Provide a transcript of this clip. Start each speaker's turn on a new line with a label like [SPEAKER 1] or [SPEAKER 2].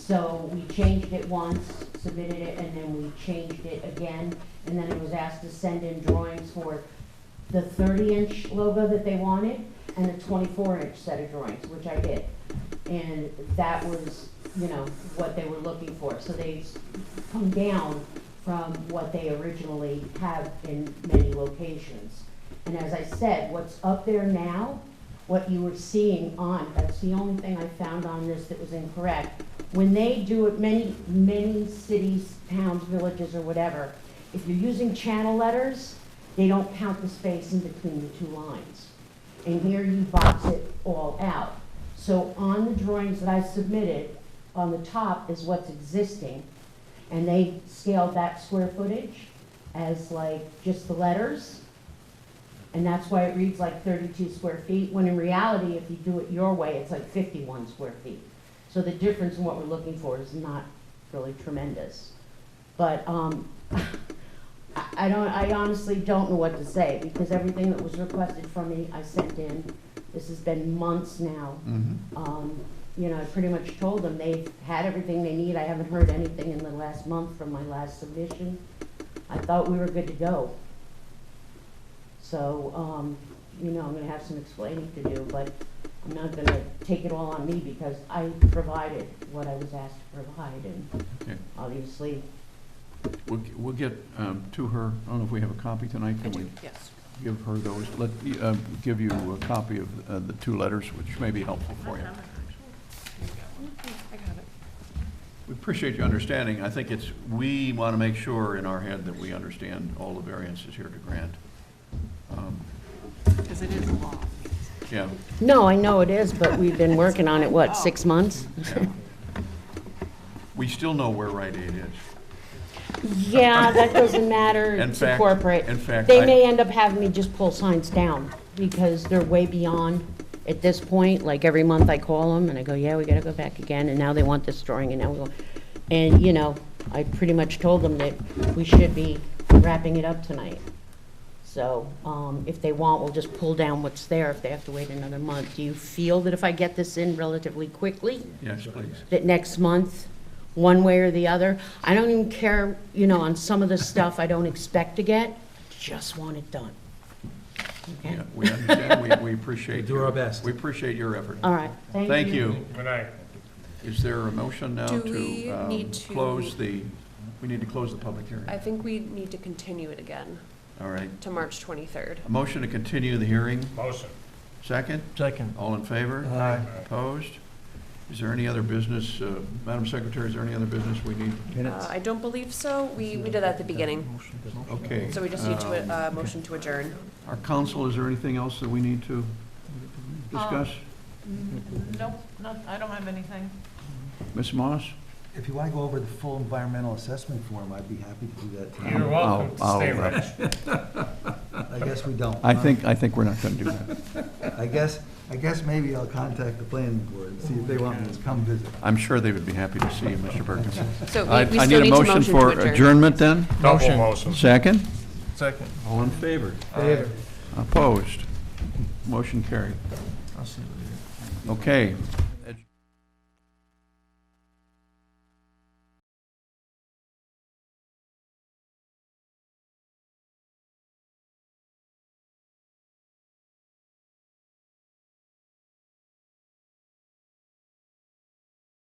[SPEAKER 1] So we changed it once, submitted it, and then we changed it again. And then it was asked to send in drawings for the thirty inch logo that they wanted and the twenty-four inch set of drawings, which I did. And that was, you know, what they were looking for. So they've come down from what they originally have in many locations. And as I said, what's up there now, what you were seeing on, that's the only thing I found on this that was incorrect. When they do it, many, many cities, towns, villages, or whatever, if you're using channel letters, they don't count the space in between the two lines. And here you box it all out. So on the drawings that I submitted, on the top is what's existing, and they scaled that square footage as like just the letters. And that's why it reads like thirty-two square feet, when in reality, if you do it your way, it's like fifty-one square feet. So the difference in what we're looking for is not really tremendous. But, um, I, I don't, I honestly don't know what to say, because everything that was requested from me, I sent in. This has been months now,
[SPEAKER 2] Mhm.
[SPEAKER 1] um, you know, I pretty much told them they've had everything they need. I haven't heard anything in the last month from my last submission. I thought we were good to go. So, um, you know, I'm gonna have some explaining to do, but I'm not gonna take it all on me because I provided what I was asked to provide and
[SPEAKER 2] Okay.
[SPEAKER 1] obviously,
[SPEAKER 2] We'll, g- we'll get um, to her, I don't know if we have a copy tonight,
[SPEAKER 3] I
[SPEAKER 2] can we
[SPEAKER 3] do, yes.
[SPEAKER 2] give her those? Let, uh, give you a copy of uh, the two letters, which may be helpful for
[SPEAKER 3] Uh-huh.
[SPEAKER 2] you.
[SPEAKER 3] I got it.
[SPEAKER 2] We appreciate your understanding, I think it's, we want to make sure in our head that we understand all the variances here to grant. Um,
[SPEAKER 3] Because it is law.
[SPEAKER 2] Yeah,
[SPEAKER 1] no, I know it is, but we've been working on it, what, six months?
[SPEAKER 2] yeah. We still know where Rite Aid is.
[SPEAKER 1] Yeah, that doesn't matter
[SPEAKER 2] In
[SPEAKER 1] to
[SPEAKER 2] fact-
[SPEAKER 1] corporate.
[SPEAKER 2] in fact, I-
[SPEAKER 1] They may end up having me just pull signs down because they're way beyond at this point. Like every month I call them and I go, yeah, we gotta go back again. And now they want this drawing and now we go. And, you know, I pretty much told them that we should be wrapping it up tonight. So, um, if they want, we'll just pull down what's there if they have to wait another month. Do you feel that if I get this in relatively quickly?
[SPEAKER 2] Yes, please.
[SPEAKER 1] that next month, one way or the other. I don't even care, you know, on some of the stuff I don't expect to get, just want it done. Okay?
[SPEAKER 2] Yeah, We understand, we, we appreciate.
[SPEAKER 4] Do our
[SPEAKER 2] your-
[SPEAKER 4] best.
[SPEAKER 2] We appreciate your effort.
[SPEAKER 1] All right,
[SPEAKER 2] Thank you.
[SPEAKER 5] Good night.
[SPEAKER 2] Is there a motion now
[SPEAKER 3] Do
[SPEAKER 2] to
[SPEAKER 3] we
[SPEAKER 2] um,
[SPEAKER 3] need to-
[SPEAKER 2] close the, we need to close the public hearing?
[SPEAKER 3] I think we need to continue it again
[SPEAKER 2] All right.
[SPEAKER 3] to March 23rd.
[SPEAKER 2] A motion to continue the hearing.
[SPEAKER 5] Motion.
[SPEAKER 2] Second?
[SPEAKER 4] Second.
[SPEAKER 2] All in favor?
[SPEAKER 4] Aye.
[SPEAKER 2] Opposed? Is there any other business, uh, Madam Secretary, is there any other business we need?
[SPEAKER 3] Uh, I don't believe so. We, we did that at the beginning.
[SPEAKER 2] Okay.
[SPEAKER 3] So we just need to,
[SPEAKER 2] um,
[SPEAKER 3] uh, motion to adjourn.
[SPEAKER 2] Our counsel, is there anything else that we need to discuss?
[SPEAKER 3] Um,
[SPEAKER 6] Nope, not, I don't have anything.
[SPEAKER 2] Ms. Moss?
[SPEAKER 7] If you want to go over the full environmental assessment form, I'd be happy to do that.
[SPEAKER 5] You're
[SPEAKER 7] tonight.
[SPEAKER 5] welcome to
[SPEAKER 2] I'll-
[SPEAKER 5] stay,
[SPEAKER 2] I'll, uh,
[SPEAKER 5] Rich.
[SPEAKER 7] I guess we don't.
[SPEAKER 2] I think, I think we're not going to do that.
[SPEAKER 7] I guess, I guess maybe I'll contact the planning board and see if they want me to come visit.
[SPEAKER 2] I'm sure they would be happy to see you, Mr. Berkins.
[SPEAKER 3] So
[SPEAKER 2] I
[SPEAKER 3] we- we
[SPEAKER 2] I
[SPEAKER 3] still
[SPEAKER 2] need a
[SPEAKER 3] need to
[SPEAKER 2] motion
[SPEAKER 3] motion to
[SPEAKER 2] for
[SPEAKER 3] adjourn.
[SPEAKER 2] adjournment then?
[SPEAKER 5] Double motion.
[SPEAKER 2] Second?
[SPEAKER 4] Second.
[SPEAKER 2] All in favor?
[SPEAKER 4] Favor.
[SPEAKER 2] Opposed? Motion carried.
[SPEAKER 4] I'll see you later.
[SPEAKER 2] Okay,